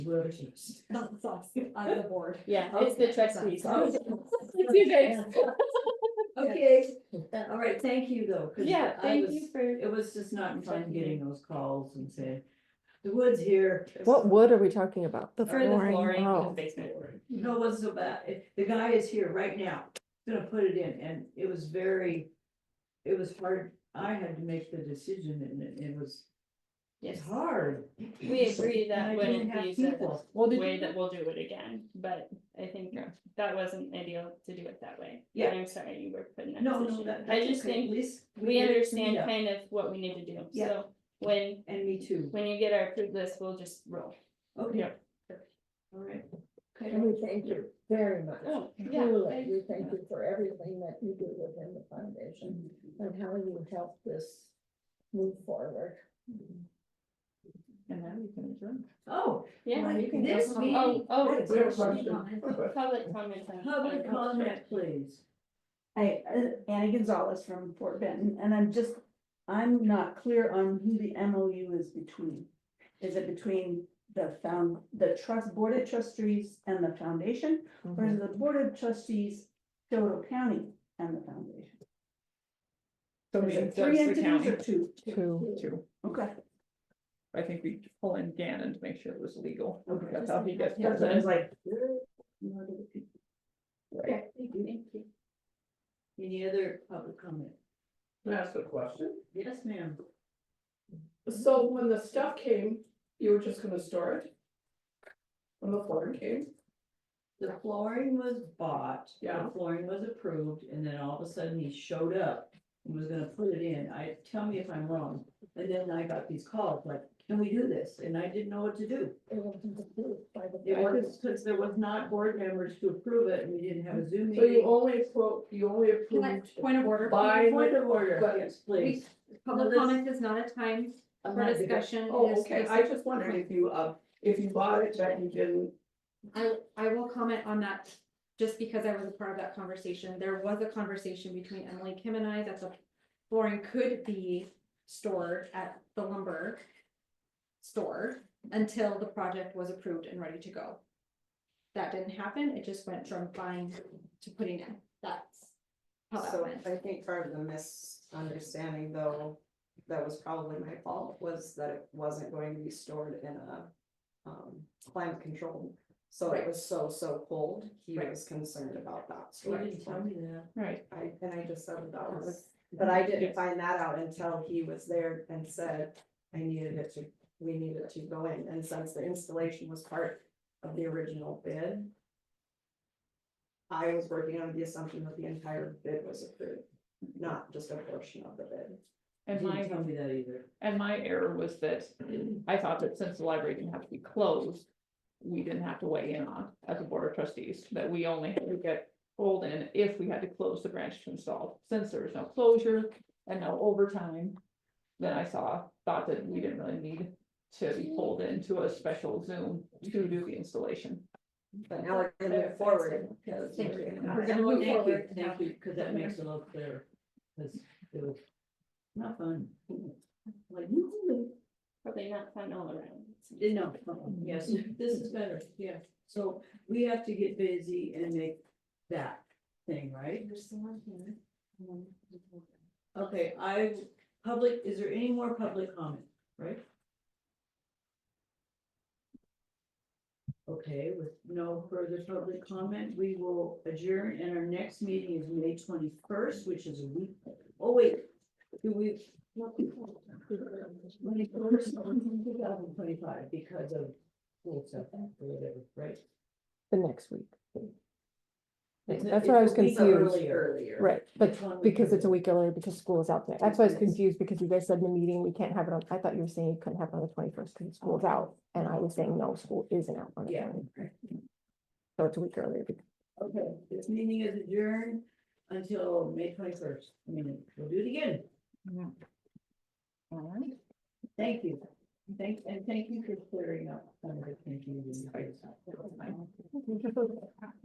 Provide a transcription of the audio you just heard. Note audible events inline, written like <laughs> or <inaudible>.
Not the socks, on the board. Yeah, it's the Okay. trust fees. Okay. <laughs> You guys. Okay, uh, all right, thank you though. 'cause Yeah, I thank was- you for, It was just not fun getting those calls and saying, the woods here. What wood are we talking about? The for the flooring in the Oh, basement. No one's so bad, the guy is here right now, gonna put it in, and it was very, it was hard, I had to make the decision and it, it was, Yes, it's hard. we agree that And I didn't wouldn't have be the people. Well, did, way that we'll do it again, but I think that wasn't ideal to do it that way. Yeah. And I'm sorry you were put in that No, no, position. that, I that's just okay, at think least. we did understand clean up. kind of what we need to do, Yeah. so when, And me too, when you get our approved list, we'll just roll. okay. Yeah. All right. And we thank you very much. Oh, yeah. Truly, we thank you for everything that you do within the foundation and how you help this move forward. And then we can adjourn. Oh, Yeah, you can go this home. meeting. Oh, oh, Right, we have public questions. comment. public comment. on- Public on- comment, please. Hi, uh, Annie Gonzalez from Fort Benton, and I'm just, I'm not clear on who the MOU is between. Is it between the found, the trust, board of trustees and the foundation, or Mm-hmm. Mhm. is it the board of trustees, Dodo County and the foundation? So Is we, it that's three the entities county or two? two, too. Okay, I think we pull in Gannon to make sure it was legal. okay. That's how he gets. Yeah, so I was like. Okay, thank you. Thank you. Any other public comment? That's the question. Yes, ma'am. So when the stuff came, you were just gonna store it? When the flooring came? The flooring was bought, the Yeah. flooring was approved, and then all of a sudden he showed up and was gonna put it in. I, tell me if I'm wrong. And then I got these calls like, can we do this? And I didn't know what to do. It wasn't approved by the It was, because there was not board members to approve it and we didn't have a Zoom So you meeting. only quote, you only Can I, approved. point of order, By Point of order, but- yes, please. public comment is not a time I'm for not gonna- discussion. It Oh, is okay, this- I just wondered if you, uh, if you bought it, that you didn't, I, I will comment on that, just because I was a part of that conversation, there was a conversation between Emily Kim and I that the flooring could be stored at the lumber store until the project was approved and ready to go. That didn't happen, it just went from buying to putting in, that's how that So went. I think part of the misunderstanding though, that was probably my fault, was that it wasn't going to be stored in a. Um, climate controlled, so it Right. was so, so cold, he Right. was concerned about that. You storage didn't tell one. me that. Right. I, and I just said that that was, but I didn't find that out until he was there and said, I needed it to, we needed it to go in, and since the installation was part of the original bid. I was working under the assumption that the entire bid was approved, not just a portion of the bid. You And my, didn't tell me that either. and my error was that I thought that since the library didn't have to be closed, we didn't have to weigh in on as a board of trustees, that we only had to get pulled in if we had to close the branch to install. Since there was no closure and no overtime, then I saw, thought that we didn't really need to be pulled into a special Zoom to do the installation. But now we're gonna move forward, because Thank we're you. gonna We're have- gonna move Thank you, forward now. thank you, because that makes it a little clearer. 'Cause it was not fun. Like, you, Probably not fun all around. you know, yes, this is better, yeah. So we have to get busy and make that thing, right? There's someone here. Okay, I, public, is there any more public comment, right? Okay, with no further public comment, we will adjourn and our next meeting is May twenty-first, which is a week. Oh, wait, do we? Twenty-first, two thousand twenty-five because of school stuff or whatever, right? the next week. It's a- That's what I was it's a week confused, earlier. right, It's one but week because it's a earlier. week earlier, because school is out there, that's why I was Yes. confused, because you guys said in the meeting, we can't have it on, I thought you were saying you couldn't have it on the twenty-first, because school's out, and I was saying, no, school isn't out on the Yeah. 21st. So it's a week earlier, because Okay, this meeting is adjourned until May twenty-first. I mean, we'll do it again. All right. Thank you. Thank, and thank you for clearing up some of the confusion.